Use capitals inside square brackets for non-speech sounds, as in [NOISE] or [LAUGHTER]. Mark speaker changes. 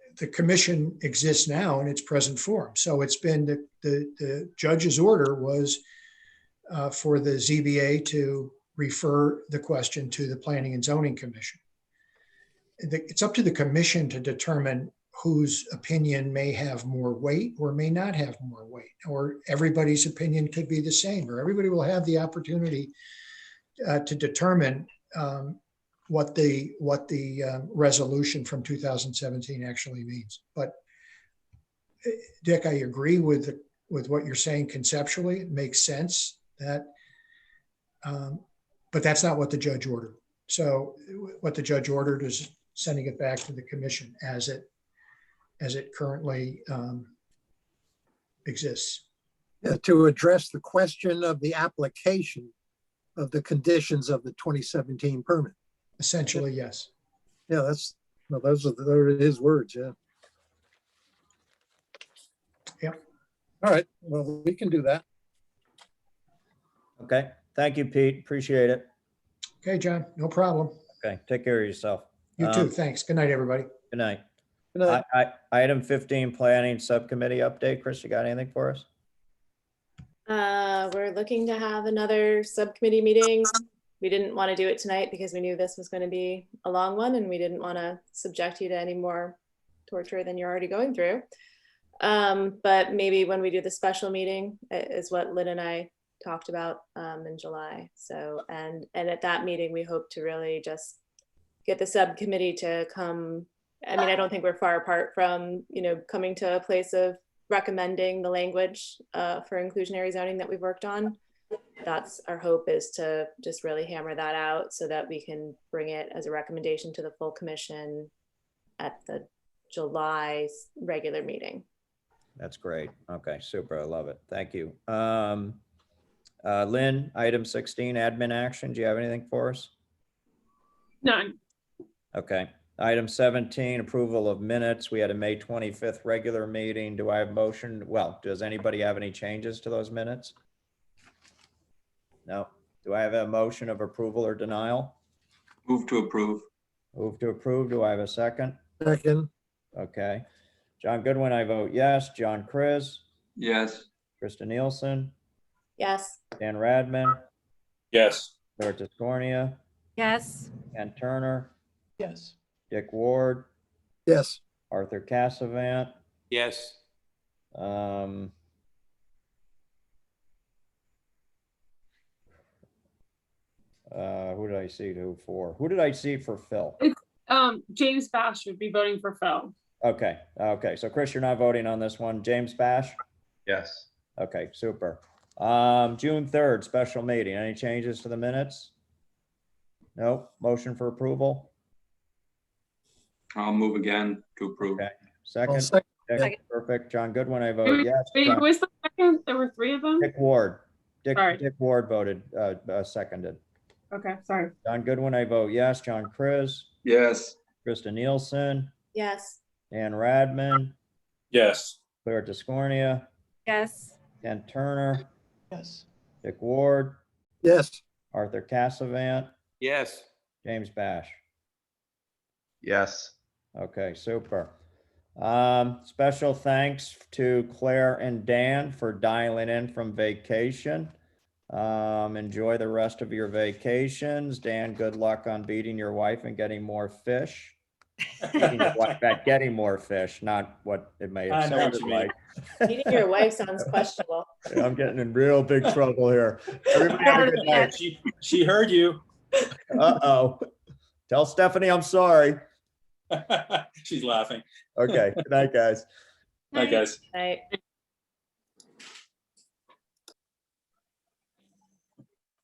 Speaker 1: the commission exists now in its present form. So it's been the, the, the judge's order was uh, for the ZBA to refer the question to the Planning and Zoning Commission. The- It's up to the commission to determine whose opinion may have more weight or may not have more weight, or everybody's opinion could be the same, or everybody will have the opportunity uh, to determine um, what the, what the um, resolution from 2017 actually means. But eh, Dick, I agree with, the- with what you're saying conceptually. It makes sense that, um, but that's not what the judge ordered. So eh, what the judge ordered is sending it back to the commission as it, as it currently um, exists.
Speaker 2: uh, to address the question of the application of the conditions of the 2017 permit.
Speaker 1: Essentially, yes.
Speaker 2: Yeah, that's, no, those are, those are his words, yeah.
Speaker 1: Yep.
Speaker 2: All right, well, we can do that.
Speaker 3: Okay, thank you, Pete. Appreciate it.
Speaker 1: Okay, John, no problem.
Speaker 3: Okay, take care of yourself.
Speaker 1: You too.
Speaker 3: Um,
Speaker 1: Thanks. Good night, everybody.
Speaker 3: Good night.
Speaker 2: Good night.
Speaker 3: I, I, item fifteen, planning subcommittee update. Chris, you got anything for us?
Speaker 4: Uh, we're looking to have another subcommittee meeting. We didn't want to do it tonight because we knew this was going to be a long one and we didn't want to subject you to any more torture than you're already going through. Um, but maybe when we do the special meeting i- is what Lynn and I talked about, um, in July. So, and, and at that meeting, we hope to really just get the subcommittee to come. I mean, I don't think we're far apart from, you know, coming to a place of recommending the language uh, for inclusionary zoning that we've worked on. That's our hope is to just really hammer that out so that we can bring it as a recommendation to the full commission at the July s- regular meeting.
Speaker 3: That's great. Okay, super. I love it. Thank you. Um, uh, Lynn, item sixteen, admin action. Do you have anything for us?
Speaker 5: None.
Speaker 3: Okay. Item seventeen, approval of minutes. We had a May twenty-fifth regular meeting. Do I have motion? Well, does anybody have any changes to those minutes? No. Do I have a motion of approval or denial?
Speaker 6: Move to approve.
Speaker 3: Move to approve. Do I have a second?
Speaker 2: Second,
Speaker 3: Okay. John Goodwin, I vote yes. John Chris,
Speaker 6: Yes.
Speaker 3: Krista Nielsen,
Speaker 4: Yes,
Speaker 3: Dan Radman,
Speaker 6: Yes.
Speaker 3: Dorcas Cornea,
Speaker 7: Yes,
Speaker 3: Ken Turner,
Speaker 6: Yes.
Speaker 3: Dick Ward,
Speaker 2: yes,
Speaker 3: Arthur Cassavant,
Speaker 6: Yes.
Speaker 3: um, uh, who did I see who for? Who did I see for Phil?
Speaker 5: Um, James Bash would be voting for Phil.
Speaker 3: Okay, okay. So Chris, you're not voting on this one. James Bash?
Speaker 6: Yes.
Speaker 3: Okay, super. Um, June third, special meeting. Any changes to the minutes? No, motion for approval?
Speaker 6: I'll move again to approve.
Speaker 3: Okay.
Speaker 2: I'll
Speaker 3: Second,
Speaker 2: sec-
Speaker 3: Dick, perfect. John Goodwin, I vote yes.
Speaker 5: Wait, who
Speaker 3: John-
Speaker 5: was the second? There were three of them?
Speaker 3: Dick Ward, Dick,
Speaker 5: Sorry.
Speaker 3: Dick Ward voted, uh, uh, seconded.
Speaker 5: Okay, sorry.
Speaker 3: John Goodwin, I vote yes. John Chris,
Speaker 6: Yes.
Speaker 3: Krista Nielsen,
Speaker 4: yes,
Speaker 3: Dan Radman,
Speaker 6: Yes.
Speaker 3: Claire Tiscornia,
Speaker 7: yes,
Speaker 3: Ken Turner,
Speaker 6: Yes.
Speaker 3: Dick Ward,
Speaker 2: yes,
Speaker 3: Arthur Cassavant,
Speaker 6: Yes.
Speaker 3: James Bash.
Speaker 6: Yes.
Speaker 3: Okay, super. Um, special thanks to Claire and Dan for dialing in from vacation. Um, enjoy the rest of your vacations. Dan, good luck on beating your wife and getting more fish. Beating your [LAUGHS] wife
Speaker 6: [LAUGHS]
Speaker 3: At getting more fish, not what it may
Speaker 6: I
Speaker 3: have
Speaker 6: know what
Speaker 3: sounded
Speaker 6: you mean.
Speaker 3: like.
Speaker 4: meeting your wife sounds questionable.
Speaker 3: [LAUGHS] I'm getting in real big trouble here.
Speaker 6: [LAUGHS]
Speaker 3: Everybody have a good night.
Speaker 6: She, she heard you.
Speaker 3: Uh-oh. Tell Stephanie I'm sorry.
Speaker 6: [LAUGHS] She's laughing.
Speaker 3: Okay, good night, guys.
Speaker 6: Hi, guys.
Speaker 4: Right.